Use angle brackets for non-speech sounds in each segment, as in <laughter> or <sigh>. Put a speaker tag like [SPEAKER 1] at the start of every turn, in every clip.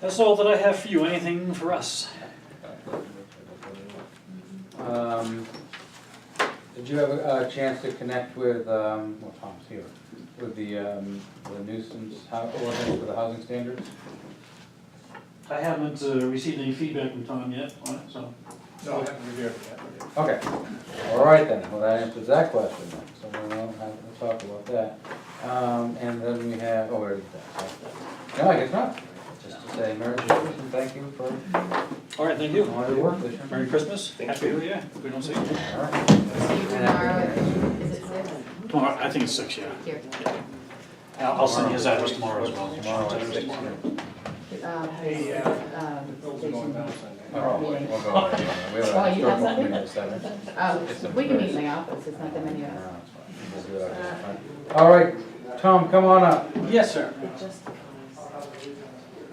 [SPEAKER 1] That's all that I have for you, anything for us?
[SPEAKER 2] Um, Did you have a a chance to connect with, um, well, Tom's here, with the um, the nuisance hou- ordinance for the housing standards?
[SPEAKER 1] I haven't uh, received any feedback from Tom yet on it, so.
[SPEAKER 3] No, I haven't reviewed it yet.
[SPEAKER 2] Okay, all right then, well, that answers that question then, so we don't have to talk about that. Um, And then we have, oh, where is that? Sorry. No, I guess not, just to say Merry Christmas and thank you for
[SPEAKER 1] All right, thank you.
[SPEAKER 2] all your work this year.
[SPEAKER 1] Merry Christmas, happy New Year, if we don't see you.
[SPEAKER 2] All right.
[SPEAKER 4] See you tomorrow, at- is it six?
[SPEAKER 1] Tomorrow, I think it's six, yeah.
[SPEAKER 4] Here.
[SPEAKER 1] I'll I'll send you his address tomorrow as well.
[SPEAKER 2] Tomorrow at six.
[SPEAKER 4] Um,
[SPEAKER 3] Hey, uh, The bills are going down Sunday.
[SPEAKER 2] Oh, wait, we'll go over it. We have a
[SPEAKER 4] Oh, you
[SPEAKER 2] historical
[SPEAKER 4] have something?
[SPEAKER 2] committee at seven.
[SPEAKER 4] Um, we can meet in the office, it's not that many of us.
[SPEAKER 2] All right, Tom, come on up.
[SPEAKER 1] Yes, sir.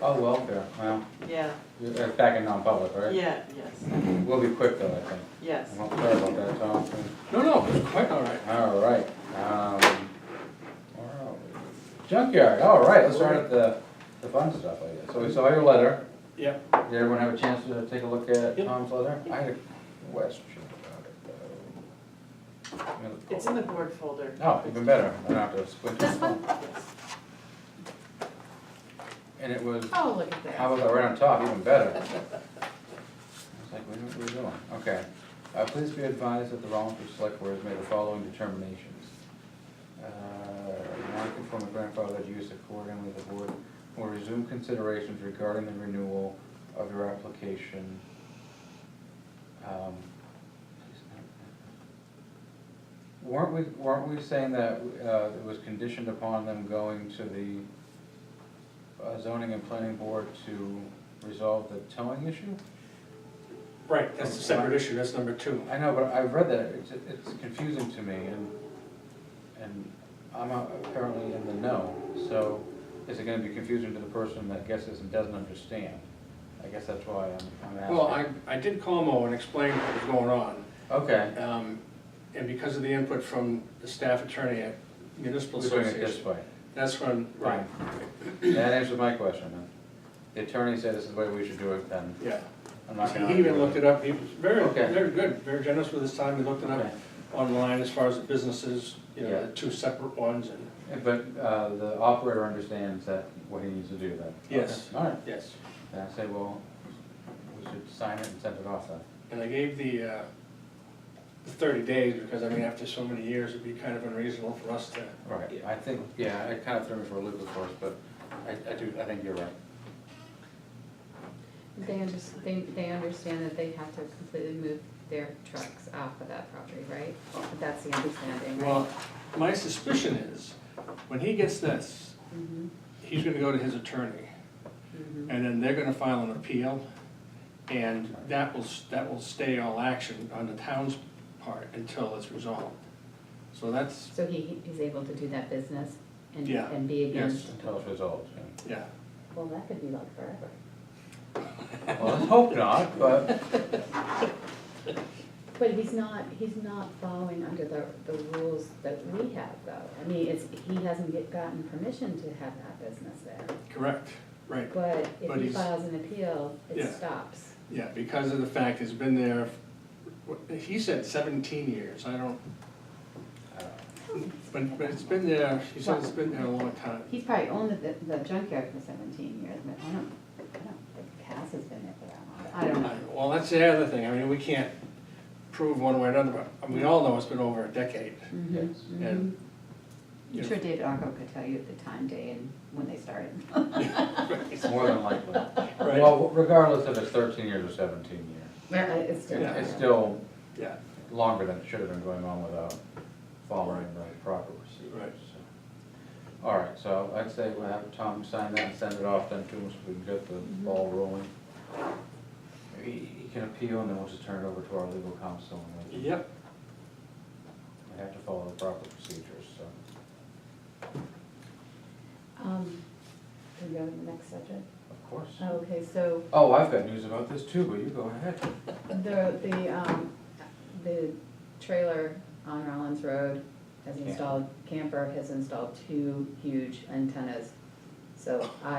[SPEAKER 2] Oh, welfare, well,
[SPEAKER 5] Yeah,
[SPEAKER 2] you're back in non-public, right?
[SPEAKER 5] yeah, yes,
[SPEAKER 2] We'll be quick though, I think.
[SPEAKER 5] yes.
[SPEAKER 2] I'm not sorry about that, Tom.
[SPEAKER 3] No, no, it's quite all right.
[SPEAKER 2] All right, um, where are we? junkyard, all right, let's start at the, the fun stuff, I guess. So we saw your letter.
[SPEAKER 3] Yep.
[SPEAKER 2] Did everyone have a chance to take a look at
[SPEAKER 1] Yep.
[SPEAKER 2] Tom's letter? I had a question about it though. I'm gonna pull
[SPEAKER 5] It's in the board folder.
[SPEAKER 2] Oh, even better, I don't have to squint.
[SPEAKER 4] This one?
[SPEAKER 2] And it was,
[SPEAKER 4] Oh, look at
[SPEAKER 2] how
[SPEAKER 4] that.
[SPEAKER 2] about that right on top, even better. I was like, what are we doing? Okay. Uh, please be advised that the Rollinsford Select Board has made the following determinations. Uh, Non-conforming grandfathered use accordingly, the board will resume considerations regarding the renewal of your application. Um, Weren't we, weren't we saying that uh, it was conditioned upon them going to the uh, zoning and planning board to resolve the towing issue?
[SPEAKER 3] Right, that's a separate issue, that's number two.
[SPEAKER 2] I know, but I've read that, it's, it's confusing to me, and, and I'm apparently in the know, so is it gonna be confusing to the person that guesses and doesn't understand? I guess that's why I'm, I'm asking.
[SPEAKER 3] Well, I, I did call Mo and explain what was going on.
[SPEAKER 2] Okay,
[SPEAKER 3] Um, And because of the input from the staff attorney at Municipal
[SPEAKER 2] we're doing it this
[SPEAKER 3] Association,
[SPEAKER 2] way.
[SPEAKER 3] that's when, right,
[SPEAKER 2] That answers my question, then. The attorney said this is the way we should do it, then
[SPEAKER 3] yeah.
[SPEAKER 2] I'm not gonna.
[SPEAKER 3] He even looked it up, he was very,
[SPEAKER 2] Okay.
[SPEAKER 3] very good, very generous with his time, he looked it up
[SPEAKER 2] Okay.
[SPEAKER 3] online as far as the businesses, you
[SPEAKER 2] Yeah.
[SPEAKER 3] know, the two separate ones and,
[SPEAKER 2] But, uh, the operator understands that, what he needs to do then?
[SPEAKER 3] Yes.
[SPEAKER 2] All right,
[SPEAKER 3] yes.
[SPEAKER 2] then I say, well, we should sign it and send it off then.
[SPEAKER 3] And I gave the, uh, the thirty days, because I mean, after so many years, it'd be kind of unreasonable for us to,
[SPEAKER 2] Right, I think, yeah, it kind of threw me for a loop, of course, but I, I do, I think you're right.
[SPEAKER 4] They under, they, they understand that they have to completely move their trucks off of that property, right? That's the understanding, right?
[SPEAKER 3] well, my suspicion is, when he gets this,
[SPEAKER 4] Mhm,
[SPEAKER 3] he's gonna go to his attorney,
[SPEAKER 4] mhm.
[SPEAKER 3] and then they're gonna file an appeal, and that will, s- that will stay all action on the town's part until it's resolved. So that's,
[SPEAKER 4] So he, he's able to do that business and,
[SPEAKER 3] Yeah,
[SPEAKER 4] and be
[SPEAKER 3] yes.
[SPEAKER 4] against,
[SPEAKER 2] Until it's resolved, yeah.
[SPEAKER 3] yeah,
[SPEAKER 4] well, that could be like forever.
[SPEAKER 2] Well, let's hope not, but,
[SPEAKER 4] But he's not, he's not following under the, the rules that we have though. I mean, it's, he hasn't get, gotten permission to have that business there.
[SPEAKER 3] correct, right,
[SPEAKER 4] But
[SPEAKER 3] But
[SPEAKER 4] if he
[SPEAKER 3] he's-
[SPEAKER 4] files an appeal, it
[SPEAKER 3] Yeah.
[SPEAKER 4] stops.
[SPEAKER 3] yeah, because of the fact it's been there, what- he said seventeen years, I don't,
[SPEAKER 2] uh,
[SPEAKER 3] But, but it's been there, she said it's been there a long time.
[SPEAKER 4] He's probably owned the, the junkyard for seventeen years, but I don't, I don't think Cass has been there for that long. I don't know.
[SPEAKER 3] Well, that's the other thing, I mean, we can't prove one way or another, but we all know it's been over a decade.
[SPEAKER 4] Mhm,
[SPEAKER 2] yes.
[SPEAKER 4] mhm.
[SPEAKER 3] And-
[SPEAKER 4] I'm sure David Arco could tell you the time, day, and when they started. <laughs>
[SPEAKER 2] It's more than likely. Well, regardless if it's thirteen years or seventeen years,
[SPEAKER 4] Yeah, It's still.
[SPEAKER 3] Yeah.
[SPEAKER 2] it's still
[SPEAKER 3] Yeah,
[SPEAKER 2] longer than it should have been going on without following the proper procedures.
[SPEAKER 3] Right.
[SPEAKER 2] so. All right, so I'd say we'll have Tom sign that and send it off then to him so we can get the ball rolling. He, he can appeal and then we'll just turn it over to our legal counsel and we
[SPEAKER 3] yep,
[SPEAKER 2] we have to follow the proper procedures, so.
[SPEAKER 4] Um, can we go to the next subject?
[SPEAKER 2] Of course.
[SPEAKER 4] Okay, so
[SPEAKER 2] Oh, I've got news about this too, but you go ahead.
[SPEAKER 4] the, the, um, the trailer on Rollins Road has
[SPEAKER 2] Yeah.
[SPEAKER 4] installed, camper has installed two huge antennas. So I